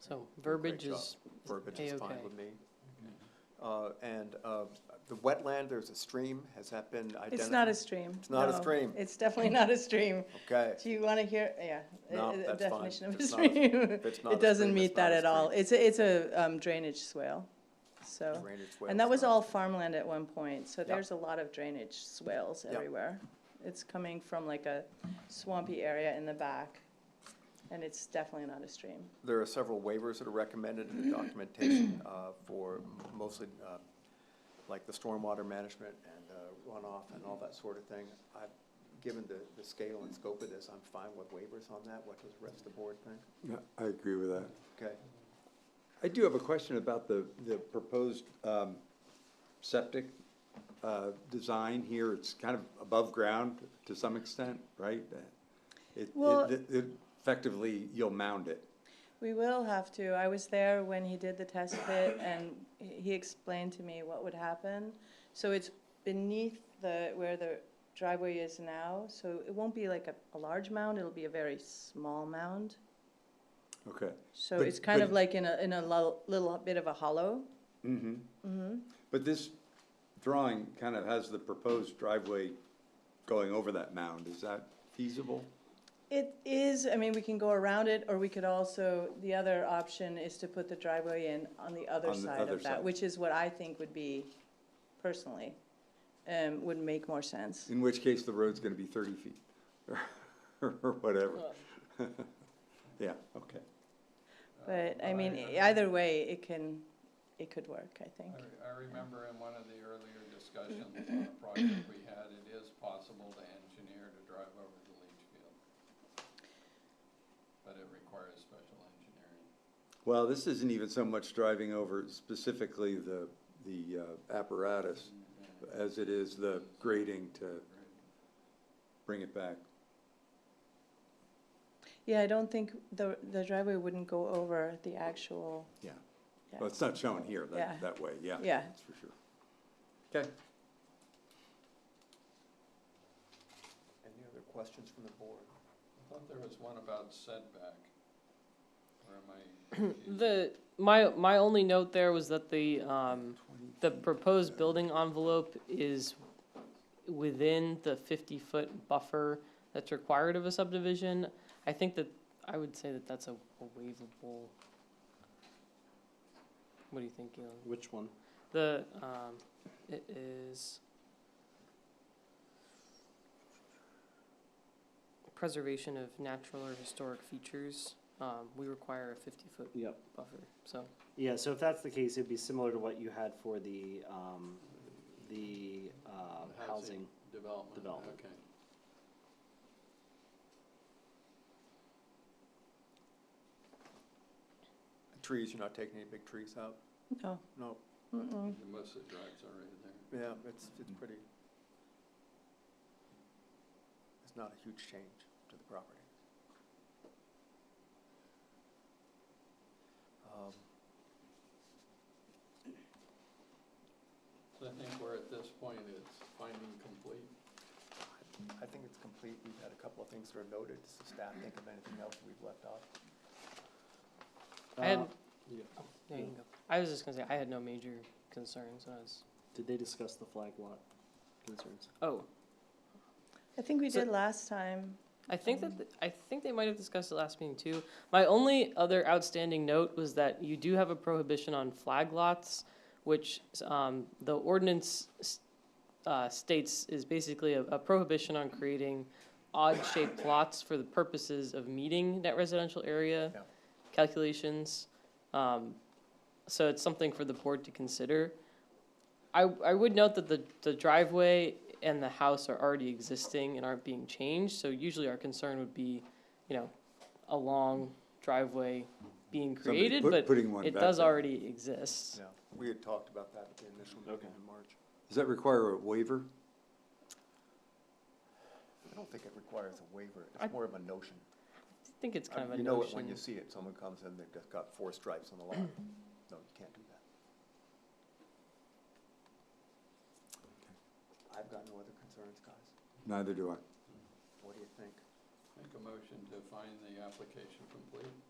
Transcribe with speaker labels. Speaker 1: So verbiage
Speaker 2: job.
Speaker 1: is,
Speaker 2: Verbiage is fine
Speaker 1: A-okay.
Speaker 2: with me. Uh, And uh, the wetland, there's a stream, has that been identified?
Speaker 3: It's not a stream.
Speaker 2: It's not a
Speaker 3: no.
Speaker 2: stream.
Speaker 3: It's definitely not a stream.
Speaker 2: Okay,
Speaker 3: Do you want to hear, yeah. uh,
Speaker 2: No,
Speaker 3: uh,
Speaker 2: that's fine.
Speaker 3: Definition of
Speaker 2: If
Speaker 3: a
Speaker 2: it's not a-
Speaker 3: stream.
Speaker 2: if it's not a
Speaker 3: It doesn't
Speaker 2: stream,
Speaker 3: meet
Speaker 2: it's not
Speaker 3: that
Speaker 2: a
Speaker 3: at all. It's, a it's a um, drainage swale, so.
Speaker 2: drainage swales.
Speaker 3: And that was
Speaker 2: not-
Speaker 3: all farmland at one point, so
Speaker 2: Yeah.
Speaker 3: there's a lot of drainage swales
Speaker 2: Yeah.
Speaker 3: everywhere. It's coming from like a swampy area in the back, and it's definitely not a stream.
Speaker 2: There are several waivers that are recommended in the documentation uh, for mostly uh, like the stormwater management and uh, runoff and all that sort of thing. I've, given the, the scale and scope of this, I'm fine with waivers on that. What does the rest of the board think?
Speaker 4: Yeah, I agree with that.
Speaker 2: Okay,
Speaker 4: I do have a question about the, the proposed um, septic uh, design here. It's kind of above ground to some extent, right? It-
Speaker 3: Well-
Speaker 4: It, it- effectively, you'll mound it.
Speaker 3: We will have to. I was there when he did the test pit and he explained to me what would happen. So it's beneath the, where the driveway is now, so it won't be like a, a large mound, it'll be a very small mound.
Speaker 4: Okay.
Speaker 3: So
Speaker 4: But-
Speaker 3: it's kind of
Speaker 4: but-
Speaker 3: like in a, in a lo- little bit of a hollow.
Speaker 4: Mm-hmm. But this drawing kind of has the proposed driveway going over that mound. Is that feasible?
Speaker 3: It is, I mean, we can go around it, or we could also, the other option is to put the driveway in on the other
Speaker 4: On the
Speaker 3: side
Speaker 4: other
Speaker 3: of that,
Speaker 4: side.
Speaker 3: which is what I think would be, personally, um, would make more sense.
Speaker 4: In which case, the road's gonna be thirty feet, or whatever. Yeah, okay.
Speaker 3: But,
Speaker 5: Oh,
Speaker 3: I mean, e-, either way, it can, it could work, I think.
Speaker 5: I re- I remember in one of the earlier discussions on a project we had, it is possible to engineer to drive over the leach field. But it requires special engineering.
Speaker 4: Well, this isn't even so much driving over specifically the, the uh, apparatus as it is the grading to bring it back.
Speaker 3: Yeah, I don't think the, the driveway wouldn't go over the actual,
Speaker 4: Yeah.
Speaker 3: Yeah.
Speaker 4: Well, it's not shown here
Speaker 3: Yeah.
Speaker 4: that, that way, yeah.
Speaker 3: Yeah.
Speaker 4: That's for sure. Okay.
Speaker 2: any other questions from the board?
Speaker 5: I thought there was one about setback. Or am I? confused?
Speaker 1: the, my, my only note there was that the, um, the proposed building envelope is within the fifty-foot buffer that's required of a subdivision. I think that, I would say that that's a a waivable. What do you think, Galen?
Speaker 2: Which one?
Speaker 1: The, um, it is preservation of natural or historic features. Um, we require a fifty-foot
Speaker 6: Yep.
Speaker 1: buffer, so.
Speaker 6: Yeah, so if that's the case, it'd be similar to what you had for the, um, the, uh, housing.
Speaker 5: Development.
Speaker 6: Development.
Speaker 5: Okay.
Speaker 2: Trees, you're not taking any big trees out?
Speaker 3: no.
Speaker 2: No,
Speaker 3: Mm-mm.
Speaker 5: Most of the drives are right there.
Speaker 2: yeah, it's, it's
Speaker 4: Mhm.
Speaker 6: Mm.
Speaker 2: pretty. It's not a huge change to the property. Um,
Speaker 5: So I think we're at this point, it's finding complete.
Speaker 2: I think it's complete. We've had a couple of things that are noted. Does the staff think of anything else we've left off?
Speaker 1: I had,
Speaker 6: Uh,
Speaker 1: there you go. I was just gonna say, I had no major concerns, and I was,
Speaker 6: Did they discuss the flag lot concerns?
Speaker 1: oh,
Speaker 3: I think we
Speaker 1: So-
Speaker 3: did last time.
Speaker 1: I think that, th- I think they might have discussed it last meeting too. My only other outstanding note was that you do have a prohibition on flag lots, which, um, the ordinance, s- uh, states is basically a, a prohibition on creating odd-shaped lots for the purposes of meeting net residential area
Speaker 2: Yeah.
Speaker 1: calculations. Um, so it's something for the board to consider. I, I would note that the, the driveway and the house are already existing and aren't being changed, so usually our concern would be, you know, a long driveway being
Speaker 4: Somebody
Speaker 1: created,
Speaker 4: put-
Speaker 1: but
Speaker 4: putting one
Speaker 1: it
Speaker 4: back
Speaker 1: does
Speaker 4: there.
Speaker 1: already exist.
Speaker 2: Yeah. We had talked about that at the initial meeting
Speaker 6: Okay.
Speaker 2: in March.
Speaker 4: Does that require a waiver?
Speaker 2: I don't think it requires a waiver.
Speaker 1: I-
Speaker 2: It's more of a notion.
Speaker 1: I think it's kind of a
Speaker 2: Um, You know it when you
Speaker 1: notion.
Speaker 2: see it. Someone comes in, they've just got four stripes on the line. No, you can't do that. I've got no other concerns, guys.
Speaker 4: Neither do I.
Speaker 2: What do you think?
Speaker 5: Make a motion to find the application complete.